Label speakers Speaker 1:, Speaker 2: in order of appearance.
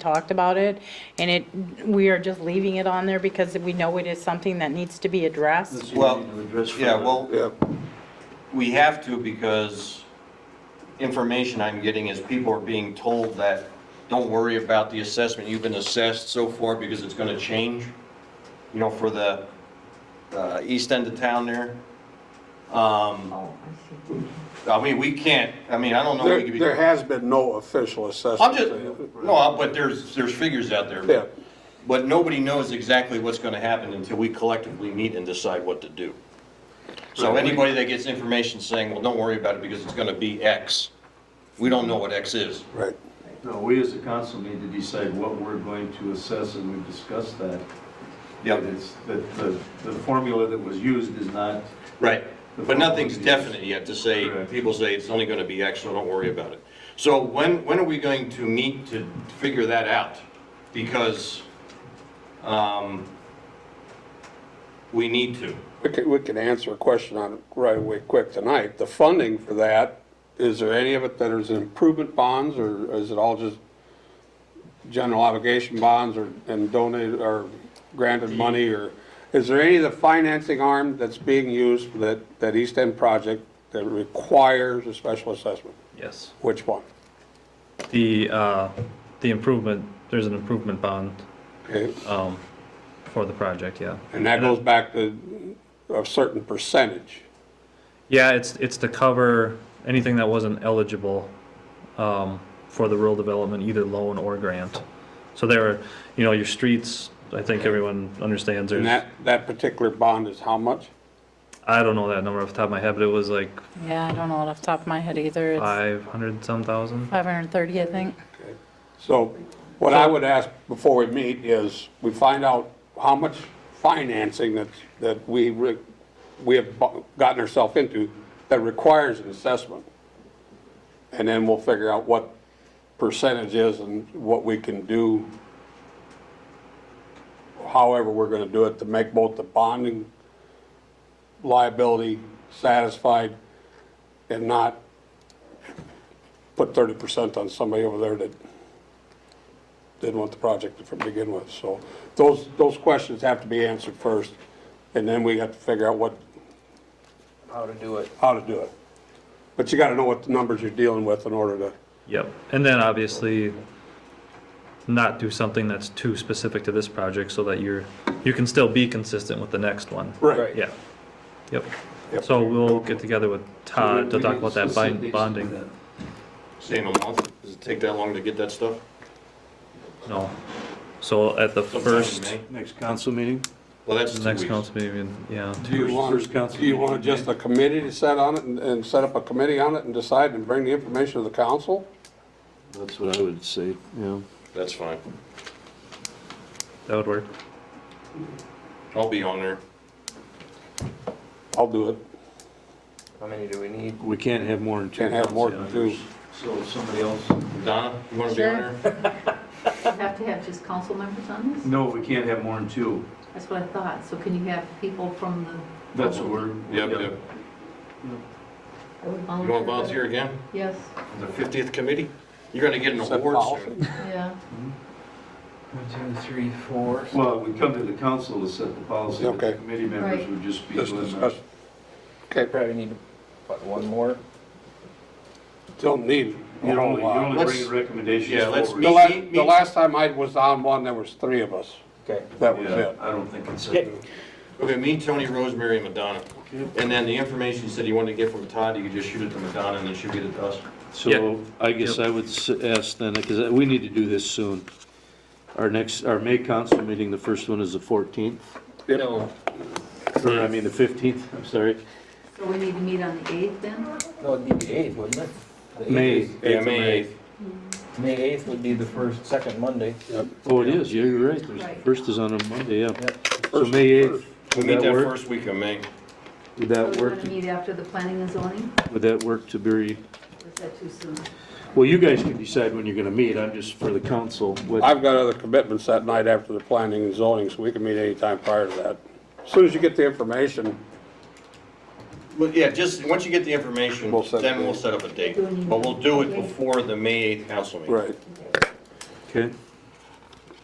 Speaker 1: talked about it, and it, we are just leaving it on there because we know it is something that needs to be addressed.
Speaker 2: Well,
Speaker 3: Need to address
Speaker 2: yeah,
Speaker 3: further.
Speaker 2: well,
Speaker 4: Yeah,
Speaker 2: we have to because information I'm getting is people are being told that, don't worry about the assessment, you've been assessed so far because it's gonna change, you know, for the, uh, east end of town there. Um,
Speaker 5: Oh, I see.
Speaker 2: I mean, we can't, I mean, I don't know. we
Speaker 4: there,
Speaker 2: could
Speaker 4: there
Speaker 2: be-
Speaker 4: has been no official
Speaker 2: I'm
Speaker 4: assessment.
Speaker 2: just, no, but there's, there's figures out there.
Speaker 4: Yeah,
Speaker 2: But nobody knows exactly what's going to happen until we collectively meet and decide what to do. So anybody that gets information saying, well, don't worry about it because it's going to be X, we don't know what X is.
Speaker 4: right.
Speaker 3: No, we as a council need to decide what we're going to assess, and we've discussed that.
Speaker 2: Yep.
Speaker 3: That It's, that the, the formula that was used is not,
Speaker 2: Right. But nothing's definite yet to say, people say it's only going to be X, so don't worry about it. So when, when are we going to meet to figure that out? Because um, we need to.
Speaker 4: We could, we could answer a question on it right away quick tonight. The funding for that, is there any of it that is improvement bonds or is it all just general obligation bonds or, and donated or granted money or? Is there any of the financing arm that's being used for that, that East End project that requires a special assessment?
Speaker 6: Yes.
Speaker 4: Which one?
Speaker 6: The, uh, the improvement, there's an improvement bond,
Speaker 4: Okay,
Speaker 6: um, for the project, yeah.
Speaker 4: And
Speaker 2: uh,
Speaker 4: that goes back to a certain percentage.
Speaker 6: Yeah, it's, it's to cover anything that wasn't eligible, um, for the rural development, either loan or grant. So there are, you know, your streets, I think everyone understands
Speaker 4: And
Speaker 6: there's,
Speaker 4: that, that particular bond is how much?
Speaker 6: I don't know that number off the top of my head, but it was like
Speaker 1: Yeah, I don't know off the top of my head either. It's
Speaker 6: five hundred some thousand.
Speaker 1: 530, I think.
Speaker 4: So what I would ask before we meet is, we find out how much financing that, that we, re- we have bu- gotten ourselves into that requires an assessment. And then we'll figure out what percentage is and what we can do, however we're gonna do it, to make both the bonding liability satisfied and not put thirty percent on somebody over there that didn't want the project to begin with. So those, those questions have to be answered first, and then we have to figure out what. How to do it. How to do it. But you gotta know what the numbers you're dealing with in order to,
Speaker 6: Yep, and then obviously not do something that's too specific to this project so that you're, you can still be consistent with the next one.
Speaker 4: right,
Speaker 6: Yeah, yep.
Speaker 4: Yep.
Speaker 6: So we'll get together with Todd to
Speaker 3: We
Speaker 6: talk
Speaker 3: need
Speaker 6: about that
Speaker 3: specifics
Speaker 6: bind-
Speaker 3: to
Speaker 6: bonding.
Speaker 3: that.
Speaker 2: Say in a month, does it take that long to get that stuff?
Speaker 6: No. So at the
Speaker 2: Sometime in
Speaker 6: first,
Speaker 2: May?
Speaker 7: Next council meeting?
Speaker 2: Well, that's two
Speaker 6: next
Speaker 2: weeks.
Speaker 6: council meeting, yeah.
Speaker 4: Do you want,
Speaker 7: First council
Speaker 4: do you want
Speaker 7: meeting,
Speaker 4: just a committee to set on it and, and set up a committee on it and decide and bring the information to the council?
Speaker 7: That's what I would say, yeah.
Speaker 2: That's fine.
Speaker 6: That would work.
Speaker 2: I'll be on there.
Speaker 4: I'll do it,
Speaker 8: How many do we need?
Speaker 7: We can't have more than two.
Speaker 4: can't have more than
Speaker 7: council
Speaker 4: two.
Speaker 7: members.
Speaker 3: So somebody else,
Speaker 2: Donna, you want to be on there?
Speaker 5: You have to have just council members on this?
Speaker 3: no, we can't have more than two.
Speaker 5: That's what I thought. So can you have people from the?
Speaker 3: That's what we're.
Speaker 2: Yep, yep.
Speaker 5: I would
Speaker 2: You want to volunteer again?
Speaker 5: Yes,
Speaker 2: The 50th committee? You're going to get an
Speaker 4: Set
Speaker 2: award soon.
Speaker 4: policy.
Speaker 5: yeah.
Speaker 8: One, two, three, four.
Speaker 3: Well, we come to the council to set the policy, but the
Speaker 4: Okay.
Speaker 3: committee members
Speaker 5: Right.
Speaker 3: would just be.
Speaker 4: Just
Speaker 3: doing that.
Speaker 4: discuss, okay,
Speaker 8: Probably need, what, one more?
Speaker 4: don't need. a
Speaker 3: You
Speaker 4: whole
Speaker 3: only, you
Speaker 4: lot.
Speaker 3: only
Speaker 2: Let's-
Speaker 3: bring recommendations
Speaker 2: yeah,
Speaker 3: forward.
Speaker 2: let's
Speaker 4: The
Speaker 2: meet-
Speaker 4: la,
Speaker 2: meet-
Speaker 4: the last time I was on one, there was three of us,
Speaker 8: Okay.
Speaker 4: that was
Speaker 3: Yeah,
Speaker 4: it.
Speaker 3: I don't think it's.
Speaker 8: Okay.
Speaker 2: Okay, me, Tony, Rosemary, and Madonna. And then the information you said you wanted to get from Todd, you could just shoot it to Madonna and then she'll get it to us.
Speaker 6: Yeah.
Speaker 7: So I guess I would s- ask then, because we need to do this soon. Our next, our May council meeting, the first one is the 14th,
Speaker 8: No,
Speaker 7: or I mean, the 15th, I'm sorry.
Speaker 5: So we need to meet on the 8th then?
Speaker 8: no, it'd be the eighth, wouldn't it? The eighth
Speaker 7: May.
Speaker 8: is-
Speaker 2: Yeah, May 8th.
Speaker 8: May eighth would be the first, second Monday.
Speaker 7: Oh, it is, yeah, you're right. There's-
Speaker 5: Right.
Speaker 7: First is on a Monday, yeah.
Speaker 8: Yep.
Speaker 7: So May 8th,
Speaker 2: We
Speaker 7: would
Speaker 2: meet
Speaker 7: that
Speaker 2: that
Speaker 7: work?
Speaker 2: first week of May.
Speaker 7: Would
Speaker 5: So
Speaker 7: that
Speaker 5: We're
Speaker 7: work,
Speaker 5: going to meet after the planning and zoning?
Speaker 7: would that work to be,
Speaker 5: Or Is that too soon?
Speaker 7: well, you guys can decide when you're going to meet. I'm just for the council. what-
Speaker 4: I've got other commitments that night after the planning and zoning, so we can meet anytime prior to that. As Soon as you get the information,
Speaker 2: Well, yeah, just, once you get the information,
Speaker 4: We'll set-
Speaker 2: then we'll set up a date. But we'll do it before the May 8th council meeting.
Speaker 4: right,
Speaker 7: Okay,